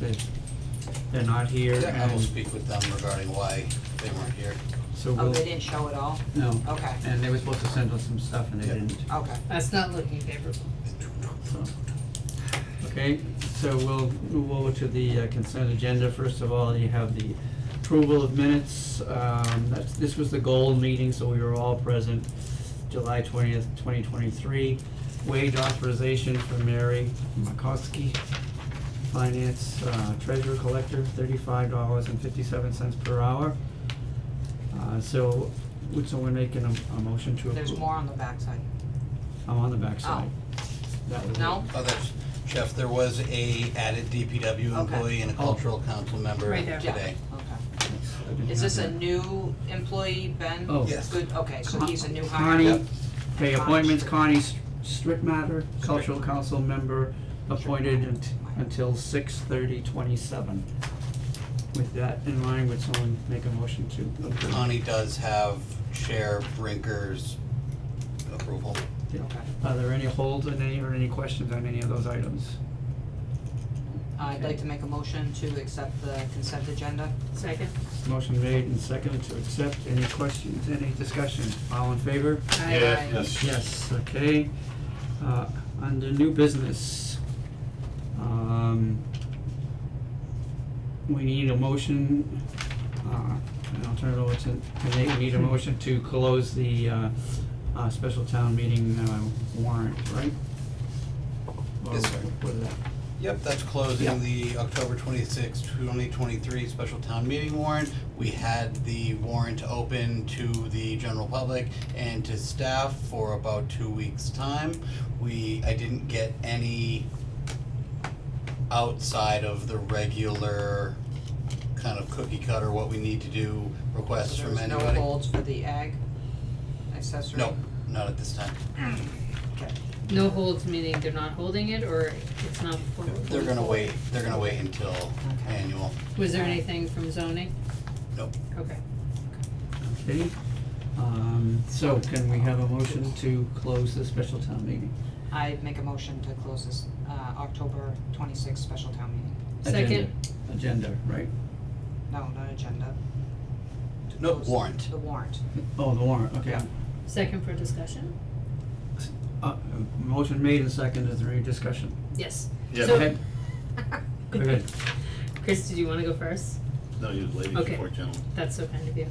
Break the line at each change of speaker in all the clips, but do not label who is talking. that they're not here and
I will speak with them regarding why they weren't here.
so we'll.
Oh, they didn't show it all?
No.
Okay.
And they were supposed to send us some stuff and they
Yeah.
didn't,
Okay.
That's not looking favorable.
so. Okay, so we'll move over to the uh, consent agenda. First of all, you have the approval of minutes. Um, that's, this was the goal meeting, so we were all present, July twentieth, twenty twenty-three. Wage authorization for Mary Makowski, finance, uh, treasurer collector, thirty-five dollars and fifty-seven cents per hour. Uh, so, would someone make an, a motion to approve?
There's more on the backside.
I'm on the backside. That was it.
No?
Oh, that's, Jeff, there was a added DPW
Okay.
employee and a cultural council member
Oh. Right
today.
there.
Yeah, Okay.
I didn't
Is this
have
a
that.
new employee, Ben?
Oh.
Yes.
Good, okay, so he's a new hire?
Connie, okay,
Connie
appointments,
Strickmatter.
Connie Str- Strickmatter, cultural council member, appointed unt- until six thirty twenty-seven. With that in mind, would someone make a motion to approve?
Connie does have Chair Brinker's approval.
Yeah.
Okay.
Are there any holds on any, or any questions on any of those items?
I'd like to make a motion to accept the consent agenda.
Second?
Motion made and seconded to accept, any questions, any discussion, all in favor?
Aye.
Yes, okay. Uh, under new business, um, we need a motion, uh, and I'll turn it over to, to Nate, we need a motion to close the, uh, uh, special town meeting, uh, warrant, right? Or
Yes, sir.
what is that?
Yep, that's
Yeah.
closing the October twenty-sixth, twenty twenty-three special town meeting warrant. We had the warrant open to the general public and to staff for about two weeks' time. We, I didn't get any outside of the regular kind of cookie cutter, what we need to do, requests
So
from
There's no
anybody.
holds for the ag accessory?
No, not at this time.
Okay.
No holds, meaning they're not holding it, or it's not formal?
They're gonna wait, they're gonna wait until
Okay.
annual.
Was there anything from zoning?
Nope.
Okay.
Okay, um, so can we have a motion to close the special town meeting?
I'd make a motion to close this, uh, October twenty-sixth special town meeting.
Second.
Agenda, agenda, right?
No, not agenda. To
No,
close
warrant.
The warrant.
Oh, the warrant, okay.
Second for discussion?
Uh, motion made and seconded, is there any discussion?
Yes.
Yeah.
So-
Okay, Go ahead.
Chris, did you wanna go first?
No, you ladies
Okay.
support gentlemen.
That's so kind of you.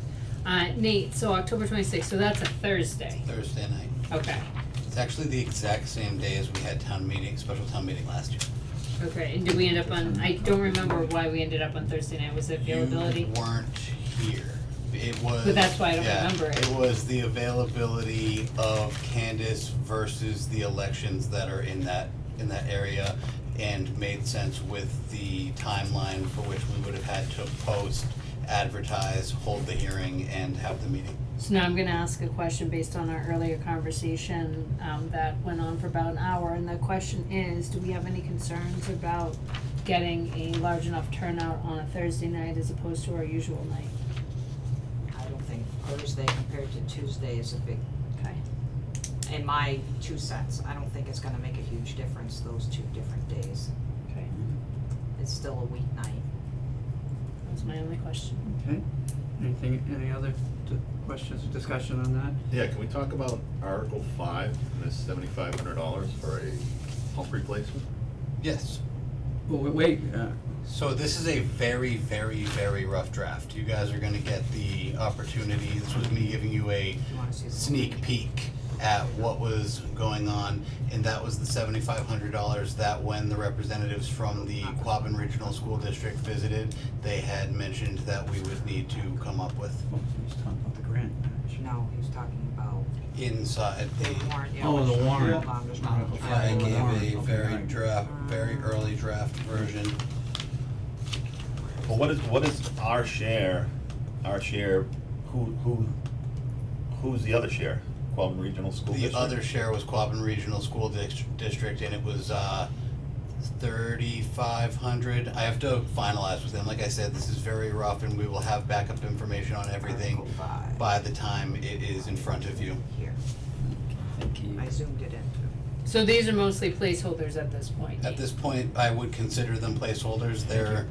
Uh, Nate, so October twenty-sixth, so that's a Thursday.
Thursday night.
Okay,
It's actually the exact same day as we had town meeting, special town meeting last year.
okay, and did we end up on, I don't remember why we ended up on Thursday night, was it availability?
You weren't here. It was.
But that's why I don't
yeah,
remember it.
It was the availability of Candace versus the elections that are in that, in that area and made sense with the timeline for which we would have had to post, advertise, hold the hearing and have the meeting.
So now I'm gonna ask a question based on our earlier conversation, um, that went on for about an hour, and the question is, do we have any concerns about getting a large enough turnout on a Thursday night as opposed to our usual night?
I don't think Thursday compared to Tuesday is a big,
Okay,
in my two cents, I don't think it's gonna make a huge difference, those two different days.
okay,
It's still a weeknight.
that was my only question.
Okay, anything, any other d- questions or discussion on that?
Yeah, can we talk about Article five, and this seventy-five hundred dollars for a pump replacement?
Yes.
Well, wa- wait, uh,
So this is a very, very, very rough draft. You guys are gonna get the opportunity. This was me giving you a
Do you wanna see the?
sneak peek at what was going on, and that was the seventy-five hundred dollars that when the representatives from the Quabbin Regional School District visited, they had mentioned that we would need to come up with
oh, he's talking about the grant.
No, he was talking about
inside
the
the.
warrant, yeah.
Oh, the
which-
warrant.
Hold on, there's
Not
not-
a-
I gave a
Okay.
very draft, very early draft version.
Well, what is, what is our share, our share, who, who, who's the other share? Quabbin Regional School
The
District?
other share was Quabbin Regional School Dis- District, and it was, uh, thirty-five hundred. I have to finalize with them. Like I said, this is very rough, and we will have backup information on everything
Article five.
by the time it is in front of you.
Here,
Thank you.
I zoomed it in too.
So these are mostly placeholders at this point?
At this point, I would consider them placeholders. They're